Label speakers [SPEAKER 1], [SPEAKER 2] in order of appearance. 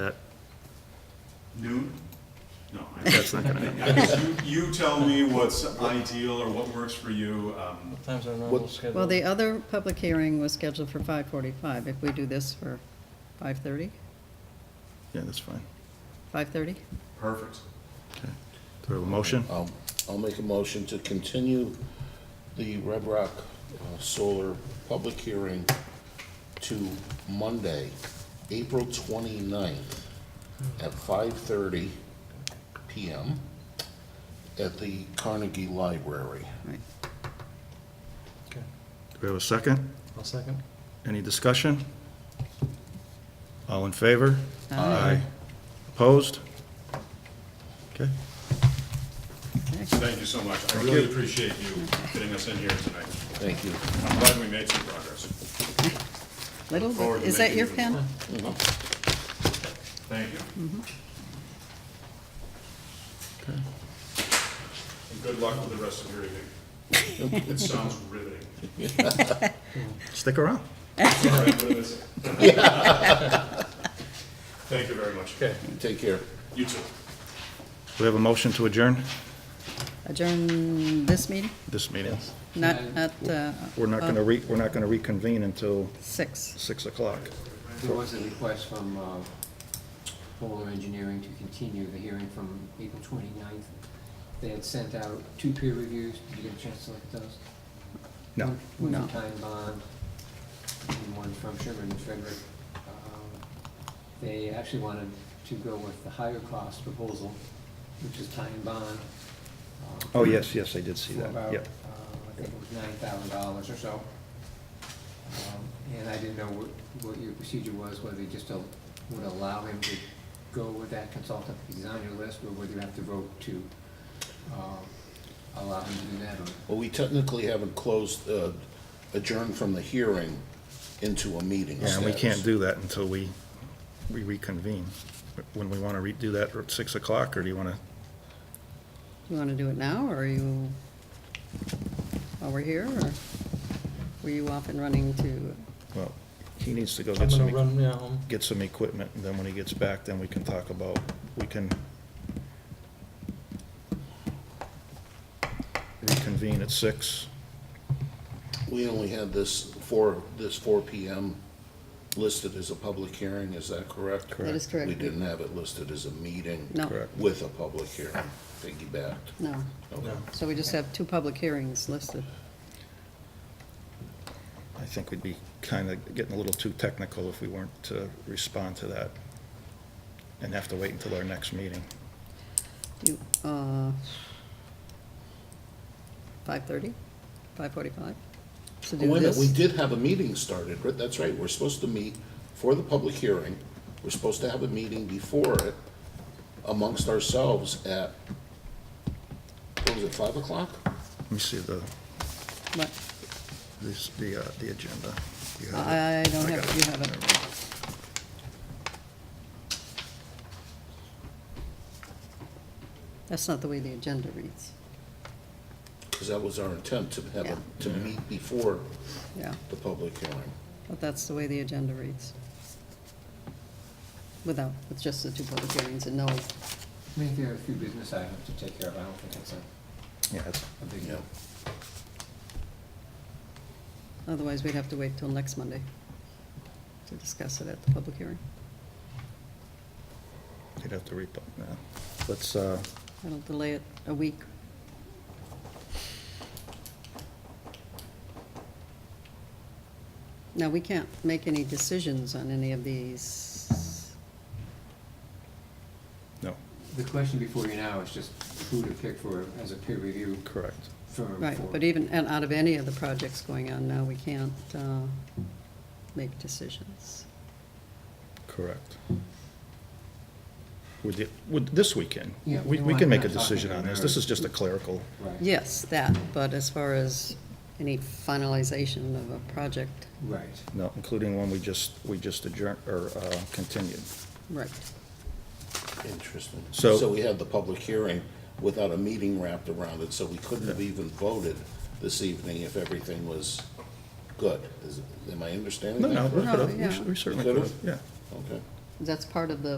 [SPEAKER 1] That,
[SPEAKER 2] Noon? No. I-
[SPEAKER 1] that's not gonna happen.
[SPEAKER 2] You you tell me what's ideal or what works for you. um,
[SPEAKER 3] What time's our normal schedule?
[SPEAKER 4] Well, the other public hearing was scheduled for 5:45. If we do this for 5:30,
[SPEAKER 1] Yeah, that's fine.
[SPEAKER 4] 5:30?
[SPEAKER 2] Perfect.
[SPEAKER 1] Okay. Do I have a motion?
[SPEAKER 5] I'll, Um, I'll make a motion to continue the Red Rock uh, Solar public hearing to Monday, April 29th at 5:30 PM at the Carnegie Library.
[SPEAKER 4] Right.
[SPEAKER 3] Okay,
[SPEAKER 1] Do we have a second?
[SPEAKER 3] I'll second.
[SPEAKER 1] Any discussion? All in favor?
[SPEAKER 4] Aye.
[SPEAKER 1] Opposed? Okay.
[SPEAKER 4] Okay.
[SPEAKER 2] Thank you so much. I really appreciate you getting us in here tonight.
[SPEAKER 5] Thank you.
[SPEAKER 2] I'm glad we made some progress.
[SPEAKER 4] Little, bit-
[SPEAKER 2] Forward to
[SPEAKER 4] is that
[SPEAKER 2] making
[SPEAKER 4] your
[SPEAKER 2] it.
[SPEAKER 4] pen?
[SPEAKER 2] Thank you. And good luck with the rest of your evening. It sounds riveting.
[SPEAKER 1] Stick around.
[SPEAKER 2] All right, what is it? Thank you very much.
[SPEAKER 3] Okay.
[SPEAKER 5] Take care.
[SPEAKER 2] You too.
[SPEAKER 1] Do we have a motion to adjourn
[SPEAKER 4] Adjourn this meeting?
[SPEAKER 1] this meeting?
[SPEAKER 4] Not, not, uh,
[SPEAKER 1] We're not gonna re, we're not gonna reconvene until
[SPEAKER 4] 6.
[SPEAKER 1] 6 o'clock.
[SPEAKER 6] There was a request from uh, Polar Engineering to continue the hearing from April 29th. They had sent out two peer reviews. Did you get a chance to look at those?
[SPEAKER 1] No.
[SPEAKER 6] One
[SPEAKER 4] No.
[SPEAKER 6] from Time Bond, and one from Sherman and Frederick. Um, They actually wanted to go with the higher cost proposal, which is Time Bond. um,
[SPEAKER 1] Oh, yes, yes, I did see
[SPEAKER 6] for about,
[SPEAKER 1] that. Yep.
[SPEAKER 6] uh, I think it was nine thousand dollars or so. Um, And I didn't know what, what your procedure was, whether you just al- would allow him to go with that consultant, if he's on your list, or whether you have to vote to, um, allow him to do that, or
[SPEAKER 5] Well, we technically haven't closed, uh, adjourned from the hearing into a meeting
[SPEAKER 1] Yeah, and we can't
[SPEAKER 5] status.
[SPEAKER 1] do that until we, we reconvene. When we wanna redo that at 6 o'clock, or do you wanna,
[SPEAKER 4] You want to do it now, or are you, while we're here, or were you off and running to,
[SPEAKER 1] well, he needs to go
[SPEAKER 3] I'm
[SPEAKER 1] get some.
[SPEAKER 3] gonna run yeah, home.
[SPEAKER 1] get some equipment, and then when he gets back, then we can talk about, we can reconvene at six.
[SPEAKER 5] We only had this four, this four PM listed as a public hearing, is that correct?
[SPEAKER 4] that is correct?
[SPEAKER 5] We didn't have it listed as a meeting.
[SPEAKER 4] No.
[SPEAKER 1] Correct.
[SPEAKER 5] With a public hearing, piggybacked.
[SPEAKER 4] No.
[SPEAKER 5] Okay.
[SPEAKER 4] So we just have two public hearings listed.
[SPEAKER 1] I think we'd be kind of getting a little too technical if we weren't to respond to that and have to wait until our next meeting.
[SPEAKER 4] You, uh, 5:30, 5:45? To do
[SPEAKER 5] Oh, wait a minute,
[SPEAKER 4] this?
[SPEAKER 5] we did have a meeting started, right? That's right, we're supposed to meet for the public hearing. We're supposed to have a meeting before it amongst ourselves at, what was it, five o'clock?
[SPEAKER 1] Let me see the,
[SPEAKER 4] What?
[SPEAKER 1] this, the, uh, the agenda. You have it?
[SPEAKER 4] I don't have,
[SPEAKER 1] got
[SPEAKER 4] it. you have it.
[SPEAKER 1] Never mind.
[SPEAKER 4] That's not the way the agenda reads.
[SPEAKER 5] Because that was our intent to have,
[SPEAKER 4] Yeah.
[SPEAKER 5] a- to meet before
[SPEAKER 4] Yeah,
[SPEAKER 5] the public hearing.
[SPEAKER 4] but that's the way the agenda reads. Without, with just the two public hearings and no,
[SPEAKER 6] I mean, there are a few business items to take care of, I don't think it's a,
[SPEAKER 1] Yeah, it's-
[SPEAKER 6] a big
[SPEAKER 5] Yeah.
[SPEAKER 6] deal.
[SPEAKER 4] otherwise we'd have to wait till next Monday to discuss it at the public hearing.
[SPEAKER 1] you'd have to repo, no. Let's, uh,
[SPEAKER 4] That'll delay it a week. Now, we can't make any decisions on any of these.
[SPEAKER 1] no,
[SPEAKER 6] The question before you now is just who to pick for, as a peer review
[SPEAKER 1] correct.
[SPEAKER 6] firm
[SPEAKER 4] Right,
[SPEAKER 6] for-
[SPEAKER 4] but even, and out of any of the projects going on now, we can't uh, make decisions.
[SPEAKER 1] Correct. With the, with this weekend,
[SPEAKER 6] Yeah,
[SPEAKER 1] we,
[SPEAKER 6] we
[SPEAKER 1] we
[SPEAKER 6] want
[SPEAKER 1] can make a
[SPEAKER 6] that document
[SPEAKER 1] decision on this, this is just a clerical,
[SPEAKER 6] Right.
[SPEAKER 4] Yes, that, but as far as any finalization of a project,
[SPEAKER 6] Right.
[SPEAKER 1] no, including one we just, we just adjourned, or, uh, continued.
[SPEAKER 4] right,
[SPEAKER 5] Interesting.
[SPEAKER 1] So-
[SPEAKER 5] So we had the public hearing without a meeting wrapped around it, so we couldn't have even voted this evening if everything was good. Is- Am I understanding
[SPEAKER 1] No,
[SPEAKER 5] that
[SPEAKER 1] no, we
[SPEAKER 5] correctly?
[SPEAKER 1] could have,
[SPEAKER 4] No, yeah.
[SPEAKER 1] we certainly
[SPEAKER 5] Could
[SPEAKER 1] could
[SPEAKER 5] have?
[SPEAKER 1] have, yeah.
[SPEAKER 5] Okay.
[SPEAKER 4] that's part of the